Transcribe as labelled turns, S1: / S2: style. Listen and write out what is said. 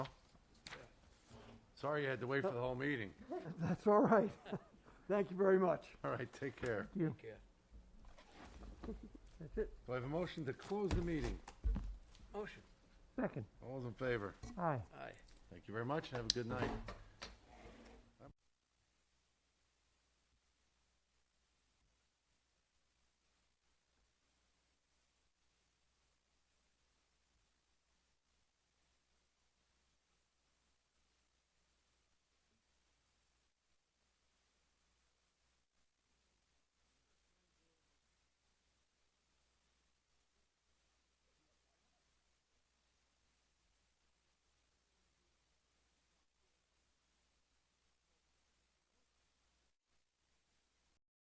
S1: Sorry you had to wait for the whole meeting.
S2: That's all right. Thank you very much.
S1: All right, take care.
S2: That's it.
S1: Do I have a motion to close the meeting?
S3: Motion.
S2: Second.
S1: All those in favor?
S2: Aye.
S3: Aye.
S1: Thank you very much, and have a good night.